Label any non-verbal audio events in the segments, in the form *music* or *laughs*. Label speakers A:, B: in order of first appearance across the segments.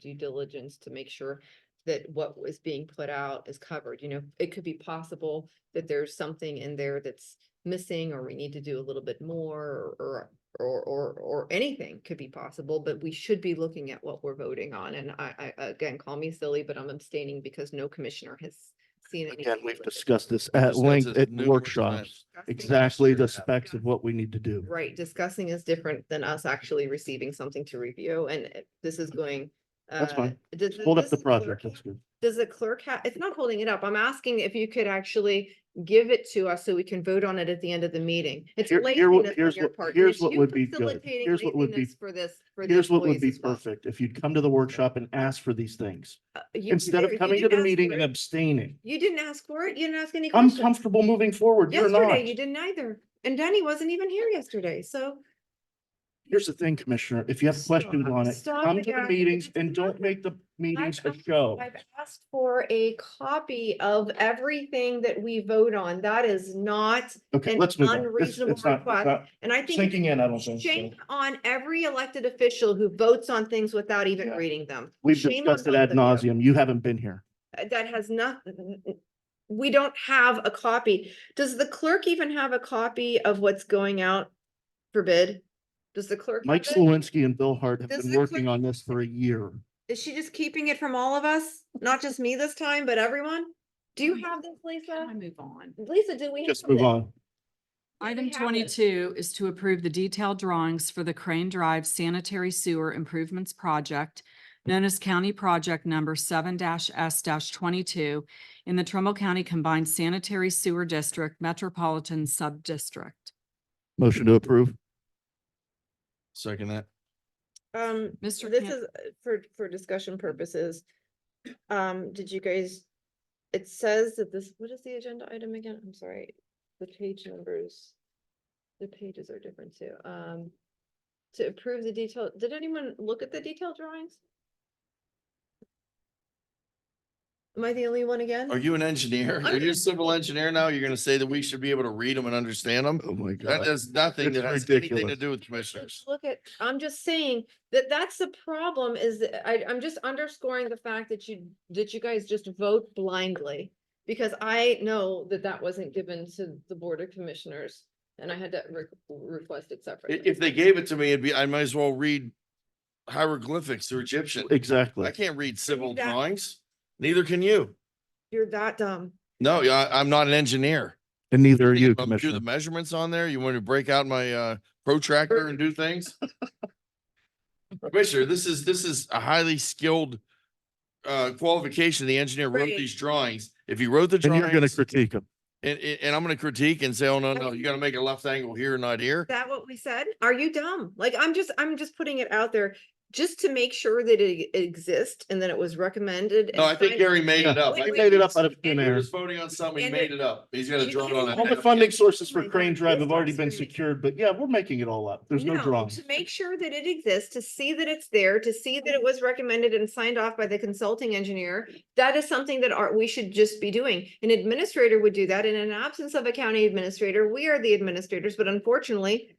A: due diligence to make sure that what was being put out is covered, you know, it could be possible that there's something in there that's missing or we need to do a little bit more or or or or anything could be possible, but we should be looking at what we're voting on. And I I again, call me silly, but I'm abstaining because no commissioner has seen anything.
B: Again, we've
A: with it.
B: discussed this at
C: Discussed
B: length
C: this
B: at
C: numerous
B: workshops,
C: times.
A: Discussing it.
B: exactly the
C: Discussed it.
B: specs of what we need to do.
A: Right, discussing is different than us actually receiving something to review, and uh, this is going.
B: That's
A: uh,
B: fine.
A: does-
B: Hold up
A: does
B: the
A: clerk-
B: project, that's good.
A: Does the clerk have, it's not holding it up, I'm asking if you could actually give it to us so we can vote on it at the end of the meeting. It's
B: Here- here what-
A: laziness on
B: here's
A: your
B: what-
A: part, and
B: here's
A: it's
B: what
A: you
B: would be good.
A: facilitating
B: Here's what would be-
A: laziness For this, for the
B: Here's what would be
A: employees as well.
B: perfect, if you'd come to the workshop and ask for these things,
A: Uh, you-
B: instead
A: you
B: of coming to
A: didn't
B: the
A: ask
B: meeting
A: for
B: and
A: it.
B: abstaining.
A: You didn't ask for it, you didn't ask any
B: I'm
A: questions.
B: comfortable moving forward, you're not.
A: Yesterday, you didn't either, and Danny wasn't even here yesterday, so.
B: Here's the thing, Commissioner, if you have questions
A: Stop.
B: on it,
A: Stop
B: come
A: it,
B: to the
A: guys.
B: meetings
A: It's
B: and don't
A: not-
B: make the meetings a
A: asked-
B: show.
A: I've asked for a copy of everything that we vote on. That is not,
B: Okay,
A: an
B: let's move on. This-
A: unreasonable
B: It's not,
A: request.
B: it's not
A: and I think
B: sinking in, I don't think. so.
A: shame on every elected official who votes on things without even
B: Yeah.
A: reading them.
B: We've
A: Shame on
B: discussed it
A: both
B: ad
A: of you.
B: nauseum. You haven't been here.
A: Uh, That has not, we don't have a copy. Does the clerk even have a copy of what's going out for bid? Does the clerk? have
B: Mike
A: it?
B: Slawinski and Bill Hart have
A: Does
B: been
A: the
B: working
A: clerk-
B: on this for a year.
A: Is she just keeping it from all of us? Not just me this time, but everyone? Do you have this,
D: Can I
A: Lisa?
D: move on?
A: Lisa, do we?
B: Just
A: have
B: move
A: it?
B: on.
A: we
D: Item
A: have it.
D: twenty-two is to approve the detailed drawings for the Crane Drive Sanitary Sewer Improvements Project, known as County Project Number seven S twenty-two in the Trumbull County Combined Sanitary Sewer District Metropolitan Subdistrict.
B: Motion to approve.
C: Second that.
A: Um,
D: Mr.
A: this
D: Camp-
A: is uh, for, for discussion purposes. *clears throat* Um, did you guys, it says that this, what is the agenda item again? I'm sorry, the page numbers. The pages are different too. Um, to approve the detail, did anyone look at the detailed drawings? Am I the only one again?
C: Are you an engineer? Are
A: I'm-
C: you a civil engineer now? You're gonna say that we should be able to read them and understand them?
B: Oh my
C: That
B: God.
C: does nothing
B: It's
C: that has anything to
B: ridiculous.
C: do with
A: But
C: commissioners.
A: Look at, I'm just saying that that's the problem is that I, I'm just underscoring the fact that you, that you guys just vote blindly. Because I know that that wasn't given to the Board of Commissioners and I had to re- request it
C: I-
A: separately.
C: If they gave it to me, it'd be, I might as well read hieroglyphics or Egyptian. I
B: Exactly.
C: can't read civil
A: that-
C: drawings. Neither can you.
A: You're that dumb.
C: No, yeah, I, I'm not an engineer.
B: And neither are
C: Think
B: you,
C: if I'm gonna Do the
B: Commissioner.
C: measurements on there? You want me to break out my uh protractor and
A: *laughs*
C: do things? Commissioner, this is, this is a highly skilled uh qualification. The engineer wrote
A: Right.
C: these drawings. If he wrote the
B: And you're going to
C: drawings,
B: critique him.
C: and, and and I'm gonna critique and say, oh, no, no, you gotta make a left angle here, not here.
A: Is that what we said? Are you dumb? Like, I'm just, I'm just putting it out there just to make sure that it exists and that it was recommended.
C: No,
A: and
C: I think
A: signed-
C: Gary made it
B: Yeah.
C: up.
A: Wait,
C: I
B: He
A: wait,
C: think
B: made it
C: he
B: up out of thin
C: was- He
B: air.
C: was voting on something. He
A: And
C: made
A: it-
C: it up. He's gonna
A: She
C: draw it on
A: needs
C: a.
A: to
B: All the
A: Okay. *laughs*
B: funding sources for
A: Oh my
B: Crane
A: God,
B: Drive
A: this
B: have already
A: is
B: been
A: serious.
B: secured, but yeah, we're making it all up. There's no drawings.
A: To make sure that it exists, to see that it's there, to see that it was recommended and signed off by the consulting engineer. That is something that are, we should just be doing. An administrator would do that. In an absence of a county administrator, we are the administrators, but unfortunately.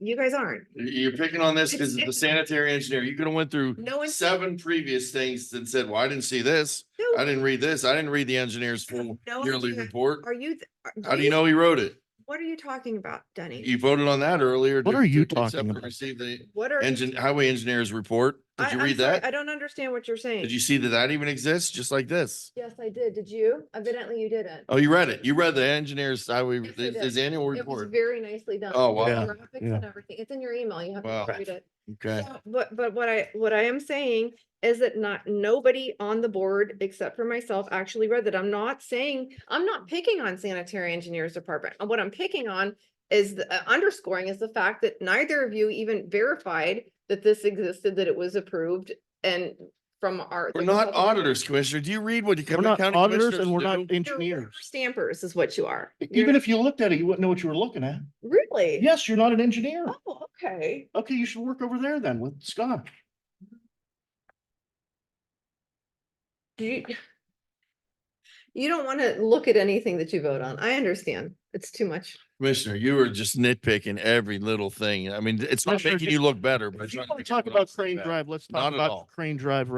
A: You guys aren't.
C: You're picking on this because
A: *laughs* It's-
C: the sanitary engineer, you could have went through
A: No one's.
C: seven previous things and said, well, I didn't see this.
A: No,
C: I didn't read this. I didn't read the engineer's full
A: No
C: yearly
A: idea.
C: report.
A: Are you? th- are-
C: How do you know he wrote it?
A: What are you talking about, Denny?
C: You voted on that earlier.
B: What
C: to-
B: are you
C: to accept
B: talking
C: and
B: about?
C: Receive the
A: What are? you-
C: engine, highway engineer's report. Did
A: I-
C: you
A: I'm
C: read
A: sorry, I
C: that?
A: don't understand what you're saying.
C: Did you see that that even exists? Just like this?
A: Yes, I did. Did you? Evidently you didn't.
C: Oh, you read it. You read the engineer's highway,
A: Yes, I
C: his
A: did.
C: his annual
A: It was
C: report.
A: very nicely done.
C: Oh, wow.
B: Yeah,
A: Graphics
B: yeah.
A: and everything. It's in your email. You have
C: Wow.
A: to read it.
C: Okay.
A: So, But, but what I, what I am saying is that not, nobody on the board except for myself actually read that. I'm not saying, I'm not picking on sanitary engineers department. What I'm picking on is the uh, underscoring is the fact that neither of you even verified that this existed, that it was approved and from our.
C: We're not auditors, Commissioner. Do you read what the
B: We're
C: county
B: not auditors and we're
C: commissioners
B: not
C: do?
A: You're
B: engineers.
A: Stampers is what you are. You're-
B: Even if you looked at it, you wouldn't know what you were looking at.
A: Really?
B: Yes, you're not an engineer.
A: Oh, okay.
B: Okay, you should work over there then with Scott.
A: Do You you don't want to look at anything that you vote on. I understand. It's too much.
C: Commissioner, you were just nitpicking every little thing. I mean, it's not
B: Commissioner,
C: making
B: if-
C: you look better, but.
B: If
C: it's
B: you
C: not
B: want to
C: making
B: talk
C: anyone
B: about
C: else look
B: Crane
C: bad.
B: Drive, let's
C: Not
B: talk
C: at all.
B: about Crane Drive